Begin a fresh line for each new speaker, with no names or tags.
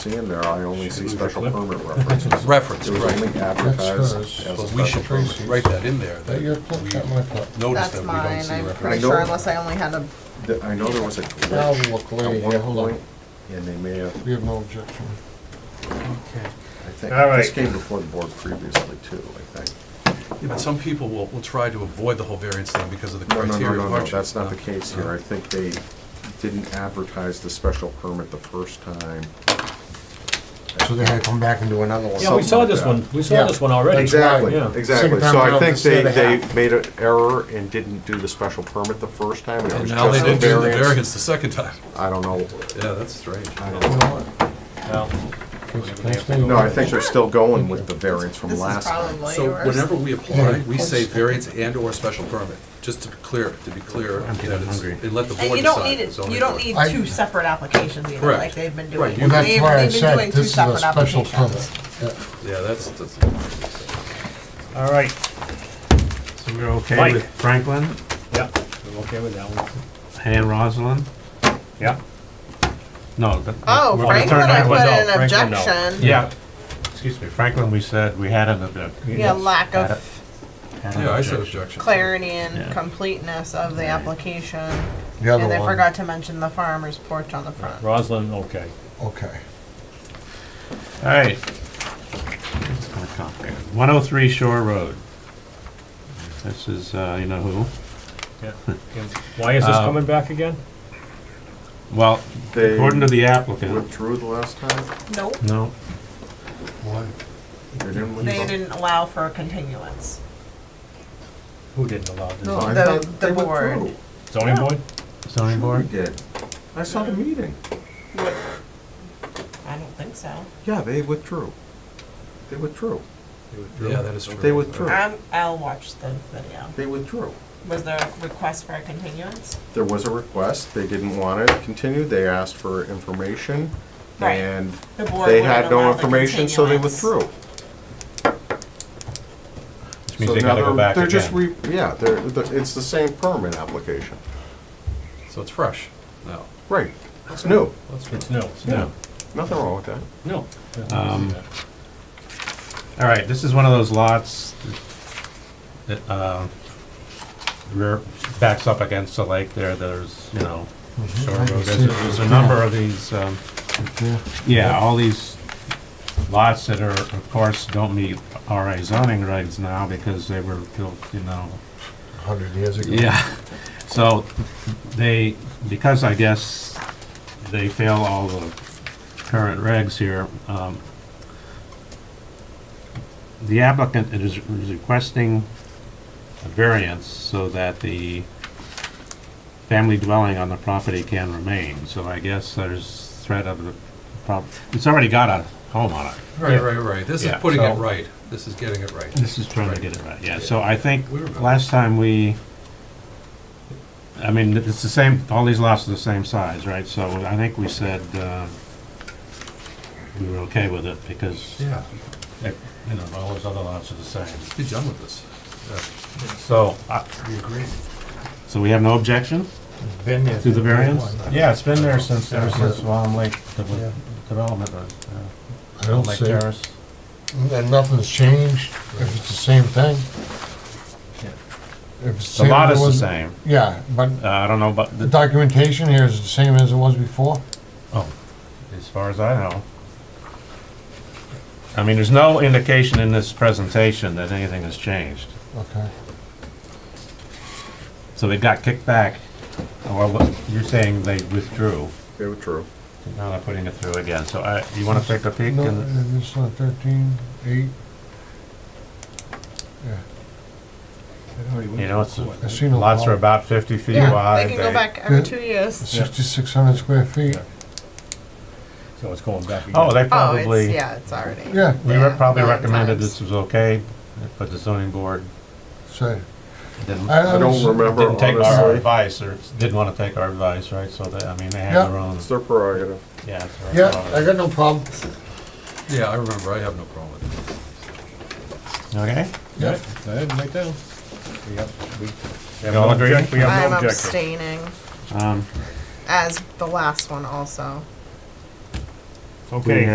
see in there, I only see special permit references.
Reference,
It was
right.
only advertised
That's
as
hers.
a
But we
special
should
permit.
write that in there, that
That
we
your clip, not my clip.
notice
That's
that we don't
mine,
see
I'm
reference.
pretty
I know-
sure unless I only had a,
The- I know there was a
Now
glitch
look, lady,
at
here,
one
hold on.
point, and they may have,
We have no objection.
Okay.
I think,
All
this
right.
came before the board previously too, I think.
Yeah, but some people will, will try to avoid the whole variance thing because of the
No, no, no,
criteria of
no, no,
hardship.
that's not the
No.
case here. I think they didn't advertise the special permit the first time.
So they're gonna come back and do another one.
Yeah, we
Something
saw
like
this
that.
one, we saw
Yeah.
this one already.
Exactly,
Yeah.
exactly.
Second time
So I
around,
think they,
instead of
they
half.
made an error and didn't do the special permit the first time, and it
And
was
now they
just a
didn't do the
variance.
variance the second time.
I don't know.
Yeah, that's strange.
I don't
You
know.
know what?
Well,
Can- can I stand
No,
over
I think they're still going with the variance from
this is
last time.
probably
So whenever
yours.
we apply, we say variance and/or special permit, just to be clear, to be clear, you know, it's- and let the board decide.
And you don't need
the
it,
zoning
you don't
board.
need
I-
two separate applications either,
Correct.
like they've been
Right,
doing.
you-
Well, that's
They've-
why I
they've been doing
said
two
this is a
separate
special
applications.
permit. Yeah.
Yeah, that's, that's,
all right,
So we're okay
Mike.
with Franklin
yeah, I'm okay with that one.
and Rosalind?
Yeah.
No. that-
Oh,
we're gonna turn
Franklin, I
Franklin
put
down.
in an
Franklin, no.
objection.
Yeah, excuse me, Franklin, we said we had an objection.
Yeah, lack
Had
of
a- had an
yeah, I said
objection.
objection.
clarity and
Yeah.
completeness of the application.
The other
And they
one.
forgot to mention the farmer's porch on the front.
Roslin, okay.
Okay.
All right. It's kinda complicated. 103 Shore Road. This is, uh, you know who?
Yeah. And Why is this
Uh,
coming back again?
Well,
They
according to the applicant,
Withdrew the last time?
Nope,
no,
Why?
They didn't
they
withdraw?
didn't allow for a continuance.
Who didn't allow this?
No, I
The-
thought
the
they
board.
withdrew.
Zoning board?
zoning
Sure
board?
they did. I saw the meeting.
I don't think so.
Yeah, they withdrew. They withdrew.
Yeah, that is true.
They withdrew.
I'm, I'll watch the video.
They withdrew.
Was there a request for a continuance?
There was a request. They didn't want it continued. They asked for information.
Right.
And
The board
they
wouldn't
had
allow
no
the
information, so they
continuance.
withdrew.
Which
So
means they
now
gotta go back
They're just,
again.
re- yeah, they're, they're- it's the same permit application.
So it's fresh now.
Right. It's new.
It's no, it's
Yeah.
no,
Nothing wrong with that.
no.
Um, All right, this is one of those lots that, uh, rear, backs up against the lake there, there's, you know, shore road, there's, there's a number of these, um,
Yeah.
yeah, all these lots that are, of course, don't meet RA zoning regs now because they were built, you know,
Hundred years ago.
yeah, so they, because I guess they fail all the current regs here, um, the applicant is is requesting a variance so that the family dwelling on the property can remain, so I guess there's threat of the prob, it's already got a home on it.
Right, right, right. This is
Yeah,
putting it
so-
right. This is getting it right.
This is trying to get it right, yeah, so I think
We remember.
last time we, I mean, it's the same, all these lots are the same size, right? So I think we said, uh, we were okay with it because, eh,
Yeah,
you know, all those other lots are the same.
be done with this.
So, I-
We agree.
so we have no objection
Been there.
to the variance? Yeah, it's been there since, ever
since
since Long Lake Development,
I don't
Lake
see,
Terrace.
and nothing's changed, if it's the same thing. If it's
The lot
as
is
it
the
was-
same,
Yeah, but
Uh, I don't know, about
the
the
documentation here is the same as it was before.
Oh, as far as I know. I mean, there's no indication in this presentation that anything has changed.
Okay.
So it got kicked back, or what, you're saying they withdrew.
They withdrew.
Now they're putting it through again, so I, you wanna take a peek?
No,
and-
it's not thirteen, eight. Yeah,
You know, it's,
I see no
lots
problem.
are about fifty feet
Yeah,
wide.
they can go back every
Yeah.
two years.
sixty-six hundred square feet.
So it's going back again.
Oh,
Oh,
they
it's,
probably,
yeah, it's already.
Yeah,
we re- probably
nine
recommended
times.
this was okay, but the zoning board
so.
didn't,
I don't remember
didn't take our
honestly.
advice, or didn't wanna take our advice, right? So they, I mean, they had their
Yeah.
own,
It's their prerogative.
yeah. it's their
Yeah,
own.
I got no problem.
Yeah, I remember. I have no problem with it.
Okay?
Yeah.
Go ahead and make that one. We have- we- we have
You all
no
agree?
object- We have
I'm
no objection.
abstaining,
Um,
as the last one also.
Okay,